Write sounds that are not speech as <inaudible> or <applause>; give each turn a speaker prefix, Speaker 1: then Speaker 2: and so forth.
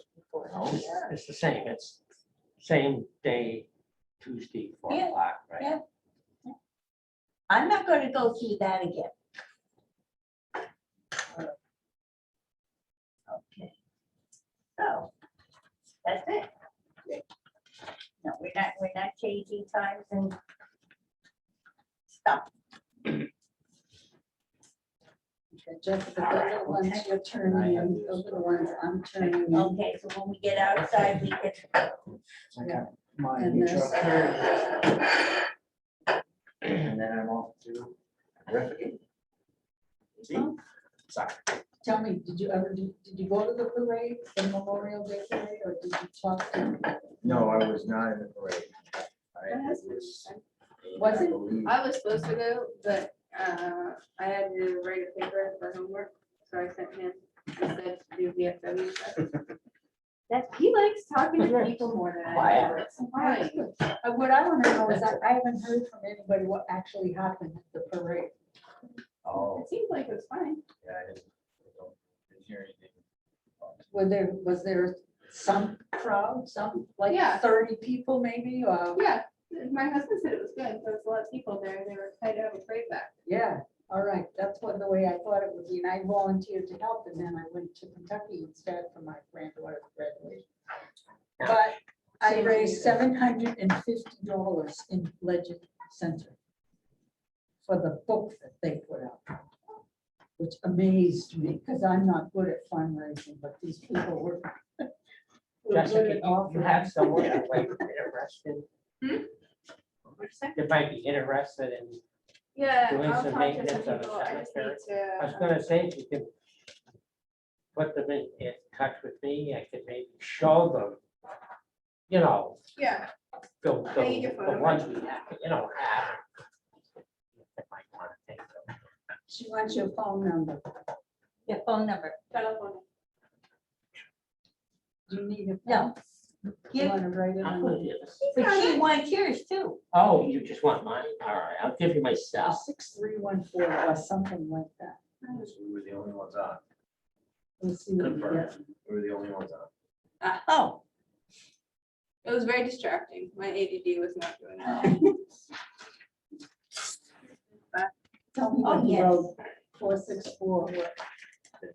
Speaker 1: No, Oh, it's the same, it's same day, Tuesday, four
Speaker 2: Yeah,
Speaker 1: o'clock, right?
Speaker 2: yeah. I'm not going to go through that again. Okay. So, that's it. No, we're not, we're not changing times and stuff.
Speaker 3: Okay, Jessica, the little ones you're turning in, the little ones I'm turning in.
Speaker 2: Okay, so when we get outside, we can,
Speaker 4: I got my
Speaker 3: And
Speaker 4: neutral
Speaker 3: this.
Speaker 4: curve. And then I'm off to Riffigan. See? Sorry.
Speaker 3: Tell me, did you ever, do? did you go to the parade, the Memorial Day parade, or did you talk to?
Speaker 4: No, I was not in the parade. I was.
Speaker 3: Was
Speaker 4: I
Speaker 3: it?
Speaker 4: believe-
Speaker 5: I was supposed to go, but uh, I had to write a paper for homework, so I sent him instead to do VFW stuff. <laughs> That, he likes talking to people more than I do. It's fine.
Speaker 3: Uh, What I want to know is, I I haven't heard from anybody what actually happened at the parade.
Speaker 4: Oh,
Speaker 5: It seems like it was fine.
Speaker 4: yeah, I didn't I don't- didn't hear anything.
Speaker 3: Were there, was there some crowd, some, like
Speaker 5: Yeah.
Speaker 3: thirty people maybe, or,
Speaker 5: Oh, Yeah, my husband said it was good. There was a lot of people there. They were kind of afraid back.
Speaker 3: yeah, all right, that's what the way I thought it would be, and I volunteered to help, and then I went to Kentucky instead for my granddaughter's graduation. But I raised seven hundred and fifty dollars in Legend Center for the book that they put out, which amazed me, because I'm not good at fundraising, but these people were. <laughs> were good
Speaker 1: Jessica,
Speaker 3: at
Speaker 1: you- you
Speaker 3: offering.
Speaker 1: have someone that might be interested,
Speaker 5: What'd you say?
Speaker 1: that might be interested in,
Speaker 5: Yeah,
Speaker 1: Doing
Speaker 5: I'll
Speaker 1: some
Speaker 5: talk to
Speaker 1: maintenance
Speaker 5: some
Speaker 1: of a
Speaker 5: people. I just
Speaker 1: cemetery.
Speaker 5: need
Speaker 1: I was
Speaker 5: to. um,
Speaker 1: gonna say, if you could put them in, in touch with me, I could maybe show them, you know,
Speaker 5: Yeah,
Speaker 1: the,
Speaker 5: I need your
Speaker 1: the, the
Speaker 5: phone.
Speaker 1: ones we have, you know, have. They might wanna take them.
Speaker 3: She wants your phone number,
Speaker 2: your phone number.
Speaker 5: telephone.
Speaker 3: Do you need it.
Speaker 2: No.
Speaker 3: You
Speaker 2: Give-
Speaker 3: want to write it
Speaker 1: I'll
Speaker 3: on?
Speaker 1: put it
Speaker 5: Um,
Speaker 1: in.
Speaker 2: But she wants yours too.
Speaker 1: Oh, you just want mine? All right, I'll give you myself.
Speaker 3: Six, three, one, four, or something like that.
Speaker 4: We were the only ones on.
Speaker 3: We'll see what we get.
Speaker 4: Confirmed. We were the only ones on.
Speaker 2: Oh,
Speaker 5: It was very distracting. My ADD was not doing well. <laughs>
Speaker 3: Tell me
Speaker 2: Oh,
Speaker 3: what you
Speaker 2: yes.
Speaker 3: wrote, four, six, four, what